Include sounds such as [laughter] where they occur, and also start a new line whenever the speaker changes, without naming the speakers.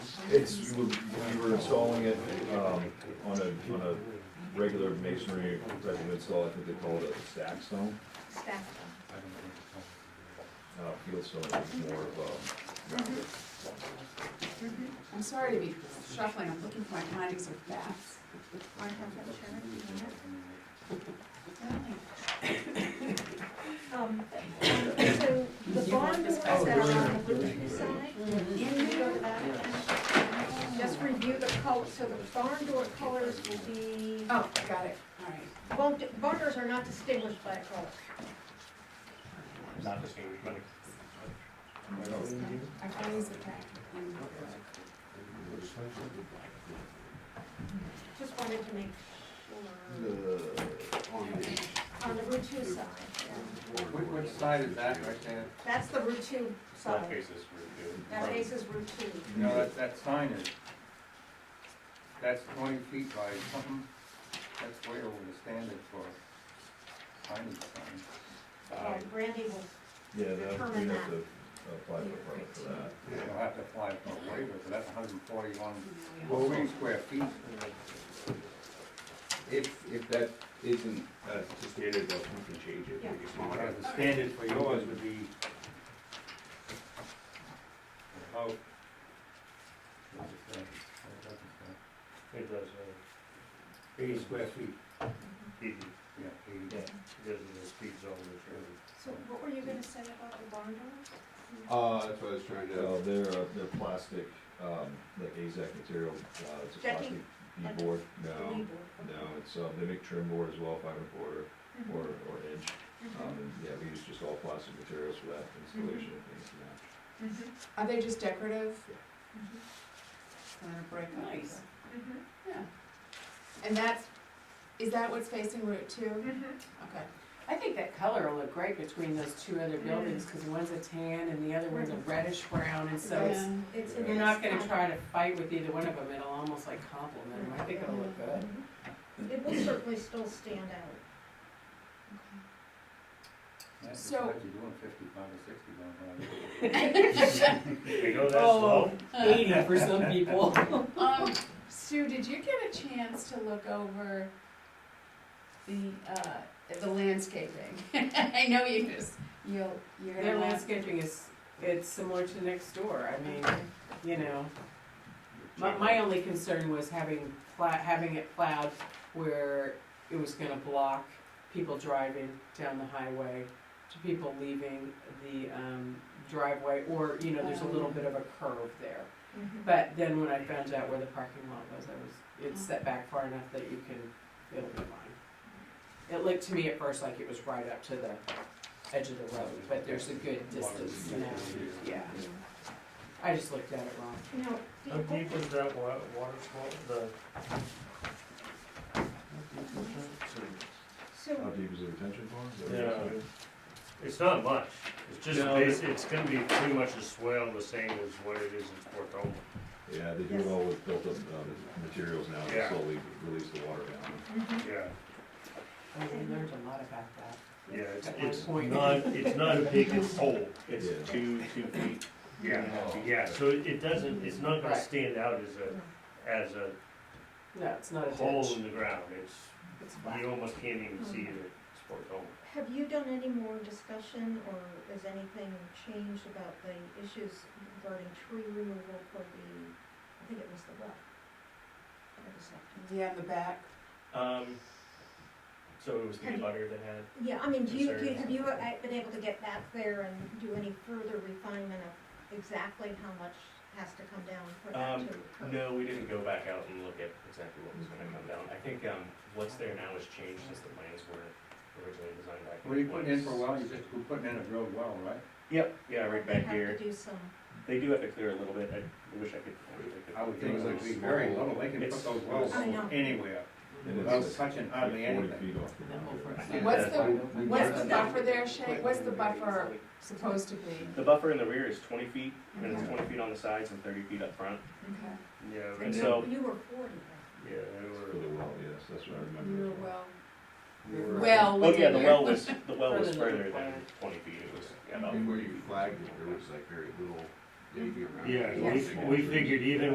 It's, we were installing it, um, on a, on a regular masonry resident install, I think they call it a stack stone.
Stack
Uh, field stone is more of um, a,
I'm sorry to be shuffling, I'm looking for my findings of facts.
I have that, Sharon, do you want [coughs] it? Um, So the bond is passed out on the blue side. In there, just review the color, so the barn door colors will be,
Oh, got it, all right.
barn barn doors are not distinguished by a color.
Not distinguished, but
I findings of fact. and-
Just wanted to make sure, on the Route 2 side. yeah.
Which, which side is that right there?
That's the Route 2
front
side.
faces were due.
That faces Route 2.
No, that, that sign is, that's twenty feet by something, that's way over the standard for tiny sign. Um,
Well, Randy will
yeah, that, we
Determine
have
that.
to apply for a permit for that.
You'll have to apply for a waiver, so that's hundred and forty-one,
yeah, we all-
forty square feet.
If, if that isn't uh, the standard, though, we can change it, make it smaller.
Uh, The standard for yours would be about, what does it say? What does it
It does,
say? Eighty square feet,
uh, it,
yeah, eighty.
yeah, it does in the speed zone, which
So what were you gonna say about the barn doors?
Uh, that's what I was trying to,
Uh, they're, uh, they're plastic, um, like AZAC material, uh, it's a plastic
Decking?
bead board.
The
No,
knee board.
no, it's,
uh,
um, they make trim board as well, five and a quarter
Mhm.
or, or inch. Um, and yeah, we use just all plastic materials for that installation and things, yeah.
Mhm.
Are they just decorative?
Mhm.
They're gonna break up.
Nice.
Mhm.
Mm-hmm.
Yeah. And that's, is that what's facing Route Two?
Mhm.
Okay.
I think that color will look great between those two other buildings, because one's a tan and the other one's a reddish brown, and so it's,
Yeah.
It's in
you're not gonna
this-
try to fight with either one of them, it'll almost like complement them, I think it'll look good.
It will certainly still stand out.
That's
So-
what you're doing fifty-five or sixty down there.
[laughs] is. We go that
Oh,
slow,
eighty for some people.
Um, Sue, did you get a chance to look over the, uh, the landscaping? [laughs] I know you just, you'll, you're gonna.
Their
laugh.
landscaping is, it's similar to next door, I mean,
Okay.
you know. My, my only concern was having pla- having it plowed where it was gonna block people driving down the highway to people leaving the, um, driveway, or, you know, there's a
Oh.
little bit of a curve there. But then when I found out where the parking lot was, I was, it's set back far enough that you can, it'll be fine. It looked to me at first like it was right up to the edge of the road, but there's a good distance now, yeah. I just looked at it wrong.
Now,
how
the-
deep was that wa- water swell, the?
How
Um,
so,
deep is the retention pond? Is that what
Yeah.
you're saying?
It's not much, it's just,
No.
basi- it's gonna be pretty much a swale the same as what it is in Portola.
Yeah, they do it all with built-up um, materials now to
Yeah.
slowly release the water down.
mm-hmm.
Yeah,
I learned a lot about that.
yeah, it's,
At
it's
one point.
not,
[laughs]
it's not a big, it's whole, it's
Yeah.
two, two feet. Yeah,
Oh.
yeah, so it it doesn't, it's not gonna
Right.
stand out as
Mm-hmm.
a, as a
No, it's not a
hole
ditch.
in the ground, it's,
It's
you
flat.
almost can't even see it, it's Portola.
Hmm. have you done any more discussion or has anything changed about the issues regarding tree removal for the, I think it was the well? That was it.
Yeah, in the back.
Um, so it was the
Have you-
abutter that had,
Yeah, I mean, do you, do you- have you
Concerns.
uh, been able to get back there and do any further refinement of exactly how much has to come down for
Um,
that to occur?
no, we didn't go back out and look at exactly what was gonna come down. I think, um, what's there now has changed since the plans were originally designed back.
What are you putting in for a
once.
well, you just, we're putting in a drilled well, right?
Yep, yeah, right back
They have
here.
to do some,
They do have to clear a little bit. I wish I could. I wish I could-
I would think it would be
Those-
very little, they can
It's-
put those wells
I know.
anywhere,
And it's-
without
it's
touching
like
hardly
Forty
anything.
feet off the
That whole front
ground.
side.
What's the-
Yeah.
What's the buffer there, Shay? What's the buffer supposed to be?
The buffer in the rear is twenty feet, and it's
Okay.
twenty feet on the sides and thirty feet up front.
Okay.
Yeah, right
And
now-
so-
you were forty, right?
Yeah, they
For the
were,
well, yes, that's what I
You
remember.
were well,
We were-
well
Oh, yeah,
within
the
[laughs]
your-
well was, the well was
Further than
further
the
than
plan.
twenty feet. It was, yeah, about
and where you flagged it, there was like very little, maybe around.
yeah,
Yeah.
we, we figured even